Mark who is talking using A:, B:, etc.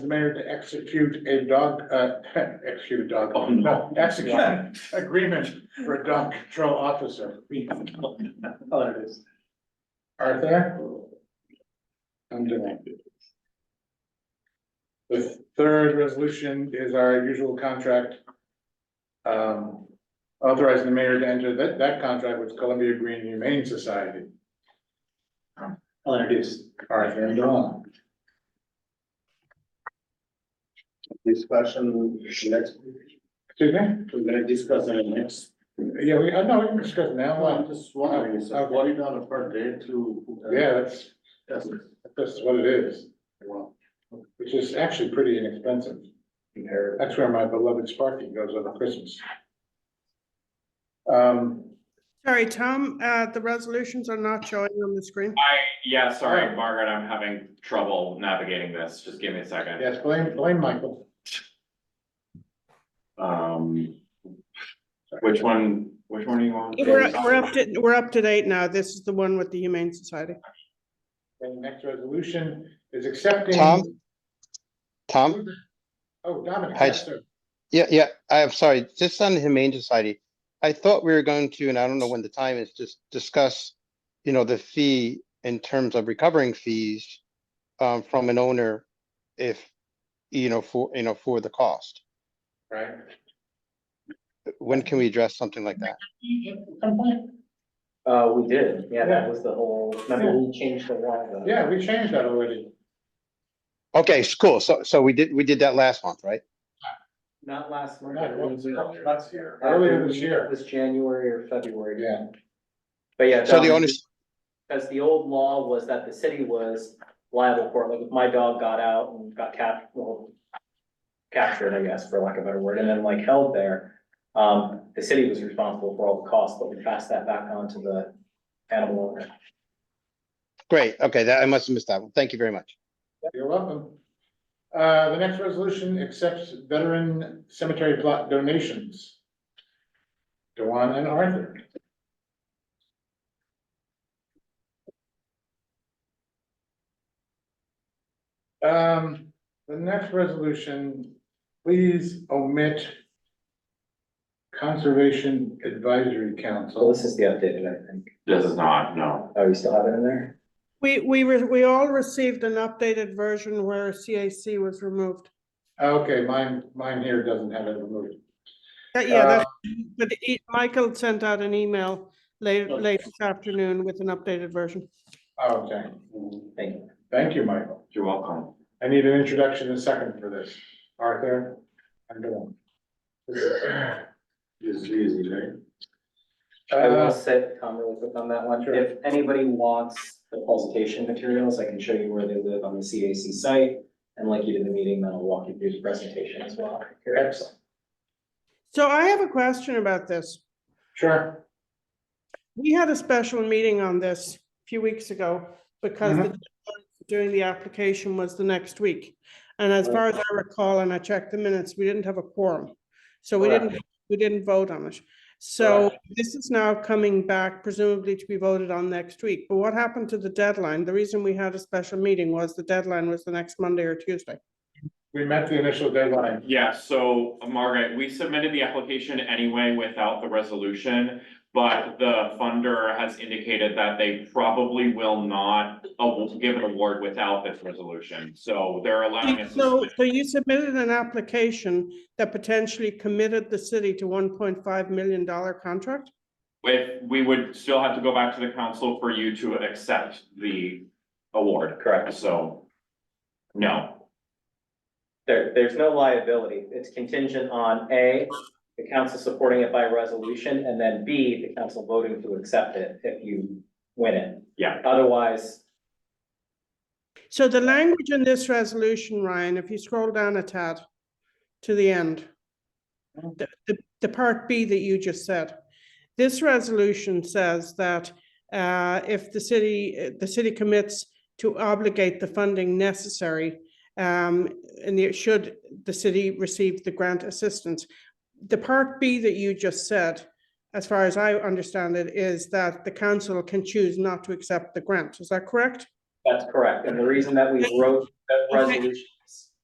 A: the mayor to execute a dog, uh, execute a dog.
B: Oh, no.
A: Execute agreement for a dog control officer.
B: Oh, there it is.
A: Are there? I'm doing it. The third resolution is our usual contract. Um, authorizing the mayor to enter that, that contract with Columbia Green Humane Society.
B: I'll introduce.
A: Arthur and Dawn.
C: Discussion next,
A: Excuse me?
C: we're gonna discuss in the next.
A: Yeah, we, uh, no, we can discuss it now.
C: I'm
A: Well,
C: just wondering, it's
A: Okay.
C: forty dollar per day to. uh,
A: Yeah, that's,
C: that's-
A: that's what it is,
C: Wow.
A: which is actually pretty inexpensive. That's where my beloved Sparky goes over Christmas. Um,
D: Sorry, Tom, uh, the resolutions are not showing on the screen.
E: Yeah,
A: Oh.
E: sorry, Margaret, I'm having trouble navigating this. Just give me a second.
A: yes, blame, blame Michael.
E: Um, which one, which one do you want?
D: We're, we're up to, we're up to date now. This is the one with the Humane Society.
A: And the next resolution is accepting.
F: Tom? Tom,
A: Oh, Dominic,
F: Hi.
A: yes, sir.
F: yeah, yeah, I'm sorry, just on the Humane Society. I thought we were going to, and I don't know when the time is, just discuss, you know, the fee in terms of recovering fees um, from an owner if, you know, for, you know, for the cost.
A: Right.
F: When can we address something like that?
B: Uh, we did, yeah, that was the whole, remember we changed the one.
A: Yeah, we changed that already.
F: Okay, s- cool. So, so we did, we did that last month, right?
B: Not last month.
A: Not
B: it was
A: earlier.
B: last year.
A: Earlier this year.
B: It was January or February,
A: Yeah,
B: but yeah.
F: So the
B: Dominic-
F: owners,
B: Because the old law was that the city was liable for, it. like, if my dog got out and got cap, well. Captured, I guess, for lack of a better word, and then like held there, um, the city was responsible for all the costs, but we passed that back on to the animal owner.
F: great, okay, that, I must have missed that one. Thank you very much.
A: you're welcome. Uh, the next resolution accepts veteran cemetery plot donations. Dewan and Arthur. Um, the next resolution, please omit Conservation Advisory
B: So
A: Council.
B: this is the updated, I think.
E: This is not, no.
B: Oh, you still have it in there?
D: We, we, re- we all received an updated version where CAC was removed.
A: Okay, mine, mine here doesn't have it removed.
D: That- Yeah, that's, but e- Michael sent out an email late,
A: Okay.
D: late this afternoon with an updated version.
A: Okay,
B: Thank you.
A: Oh, thank you, Michael.
E: You're welcome.
A: I need an introduction and second for this. Arthur, I'm doing.
C: It's easy, right?
B: I will
A: Uh,
B: say, Tom, really quick on that one, if anybody wants the presentation materials, I can show you where they live on the CAC site. And like you did in the meeting, then I'll walk you through the presentation as well.
A: Excellent.
D: So I have a question about this.
A: Sure,
D: We had a special meeting on this a few weeks ago because the
A: Mhm.
D: deadline for doing the application was the next week. And as far as I recall, and I checked the minutes, we didn't have a quorum. So we didn't, we didn't vote on it. So this is now coming back presumably to be voted on next week. But what happened to the deadline? The reason we had a special meeting was the deadline was the next Monday or Tuesday.
A: we met the initial deadline.
E: Yeah, so Margaret, we submitted the application anyway without the resolution. But the funder has indicated that they probably will not aw- give an award without this resolution. So they're allowing us. to
D: So,
E: submit-
D: so you submitted an application that potentially committed the city to one point five million dollar contract?
E: If, we would still have to go back to the council for you to accept the award, correct? So, no.
B: There, there's no liability. It's contingent on A, the council supporting it by resolution, and then B, the council voting to accept it if you win it.
E: Yeah.
B: Otherwise,
D: So the language in this resolution, Ryan, if you scroll down a tad to the end, the, the, the part B that you just said, this resolution says that uh, if the city, uh, the city commits to obligate the funding necessary, um, and it should the city receive the grant assistance. The part B that you just said, as far as I understand it, is that the council can choose not to accept the grant. Is that correct?
B: that's correct. And the reason that we wrote that
D: Okay.
B: resolution